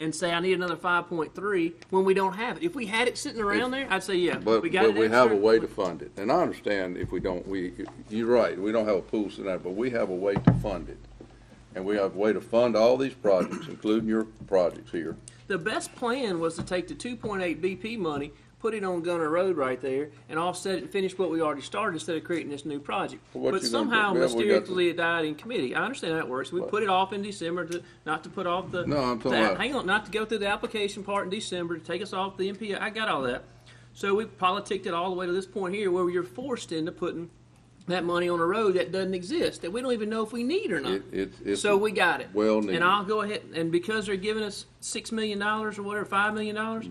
and say, I need another five point three, when we don't have it. If we had it sitting around there, I'd say, yeah, But, we got it but we have a extra. way to fund it, and I understand if we don't, we, you're right, we don't have a pool tonight, but we have a way to fund it. And we have a way to fund all these projects, including your projects here. The best plan was to take the two point eight BP money, put it on Gunner Road right there, and offset it and finish what we already started instead of creating this new project. Well, what But you gonna do? somehow Well, we got to- mysteriously it died in committee. I understand how it works. We put it off in December to, not to put off the. No, I'm talking the- about- Hang on, not to go through the application part in December, to take us off the MPO. I got all that. So we politicked it all the way to this point here where you're forced into putting that money on a road that doesn't exist, that we don't even know if we need or not. It- it's- it's So we got it. well needed. And I'll go ahead, and because they're giving us six million dollars or whatever, five million dollars,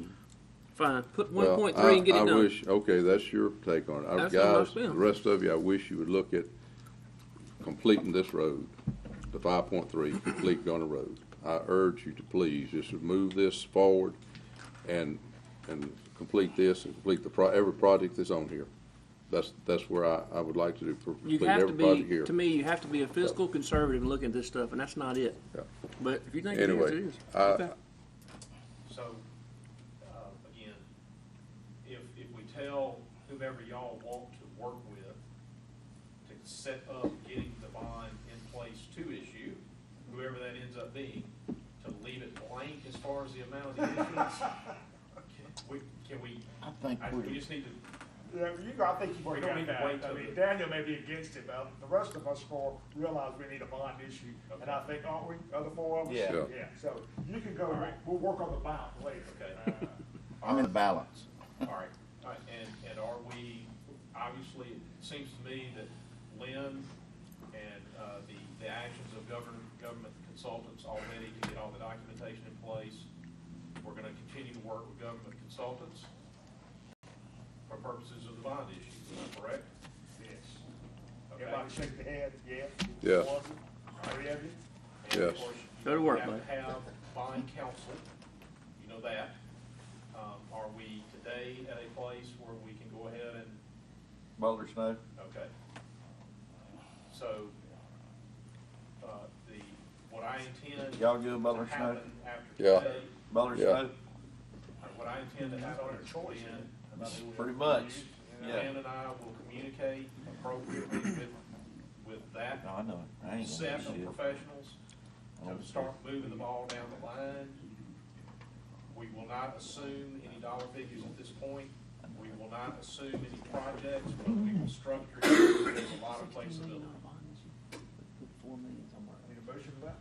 fine, put one Mm. Well, point three and get I- it I done. wish, okay, that's your take on it. I- That's what I Guys, the feel. rest of you, I wish you would look at completing this road, the five point three, complete Gunner Road. I urge you to please, just move this forward and, and complete this and complete the, pro every project that's on here. That's, that's where I, I would like to do, You complete have to every project be, here. to me, you have to be a fiscal conservative and look at this stuff, and that's not it. Yeah. But if you think it is, Anyway, it is. I, So, uh, again, if, if we tell whomever y'all want to work with to set up getting the bond in place to issue, whoever that ends up being, to leave it blank as far as the amount of the issuance, can we, can we, I think I- we we, just need to, Yeah, you, I think you We bring don't out need to that. wait I till mean, the- Daniel may be against it, but the rest of us four realize we need a bond issue, and I think, aren't we, other four of us? Yeah. Yeah. Yeah, so you can go, we'll work on the bond later. Okay. Uh, I'm in the balance. all right, all right, and, and are we, obviously, it seems to me that Lynn and, uh, the, the actions of government, government consultants already to get all the documentation in place, we're gonna continue to work with government consultants for purposes of the bond issue, am I correct? Yes. Okay. Everybody shake their heads, yeah? Yeah. One, Three of you? And of Yes. course, Go to work, You bud. have to have bond counsel, you know that. Um, are we today at a place where we can go ahead and Boulder Snow? Okay. So, uh, the, what I intend. Y'all good, Butler to happen After Yeah. today, uh, Boulder Yeah. Snow? what I intend to happen is Choice, Lynn, Pretty much, yeah. Lynn and I will communicate appropriately with, with that No, I know it. I ain't gonna set of do shit. professionals Oh, to start moving the ball down the line. We will not assume any dollar figures at this point. We will not assume any projects, but we will structure it with a lot of flexibility. Need a motion for that?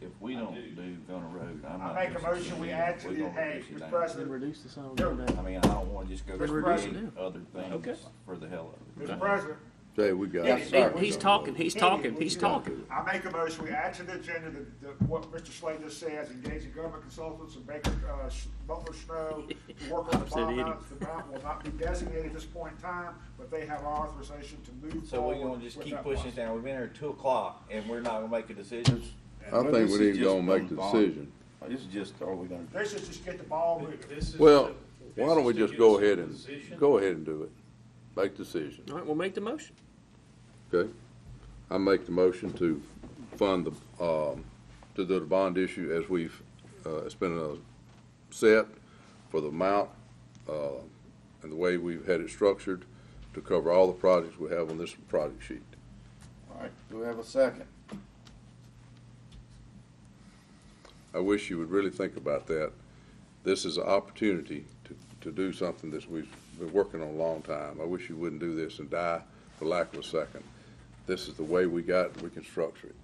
If we don't do Gunner Road, I'm not. I make a gonna motion, we do it. add to We're the- gonna hey, reduce it Mr. down. President. Reduce the sum. Go. I mean, I don't wanna just go Mr. create President. other Okay. things for the hell of it. Mr. President? Jay, we got. Yes, He- sir. He's talking, he's talking, he's Yeah. talking. I make a motion, we add to the agenda the, the, what Mr. Slade just says, engaging government consultants and Baker, uh, Sh- Butler Snow to work on the said bond idiot. balance. The amount will not be designated at this point in time, but they have our authorization to move So forward. we're gonna just with keep that pushing it process. down, we've been here two o'clock, and we're not gonna make a decision? I But think this we is need to go just and make the gone. decision. This is just, are we gonna do? They should just get the ball moving. This is Well, to- this why don't is we to just get go us in ahead a and, position- go ahead and do it, make the decision. All right, we'll make the motion. Okay, I make the motion to fund the, um, to do the bond issue as we've, uh, it's been uh, set for the amount, uh, and the way we've had it structured to cover all the projects we have on this project sheet. All right, do we have a second? I wish you would really think about that. This is an opportunity to, to do something that we've been working on a long time. I wish you wouldn't do this and die for lack of a second. This is the way we got, we can structure it.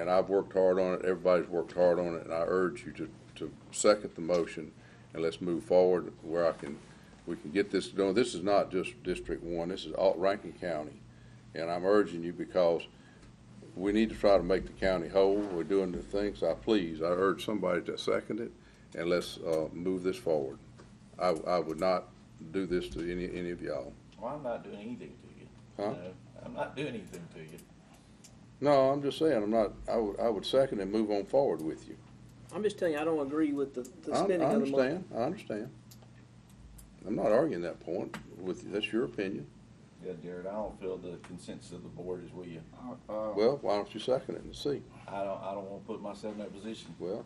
And I've worked hard on it, everybody's worked hard on it, and I urge you to, to second the motion and let's move forward where I can, we can get this going. This is not just District One, this is all Rankin County. And I'm urging you because we need to try to make the county whole. We're doing the things I please. I urge somebody to second it and let's, uh, move this forward. I, I would not do this to any, any of y'all. Well, I'm not doing anything to you. Huh? No, I'm not doing anything to you. No, I'm just saying, I'm not, I would, I would second and move on forward with you. I'm just telling you, I don't agree with the, I the I spending of the money. understand, I understand. I'm not arguing that point with, that's your opinion. Yeah, Jared, I don't feel the consensus of the board is with you. Well, why don't you second it and see? I don't, I don't wanna put myself in that position. Well,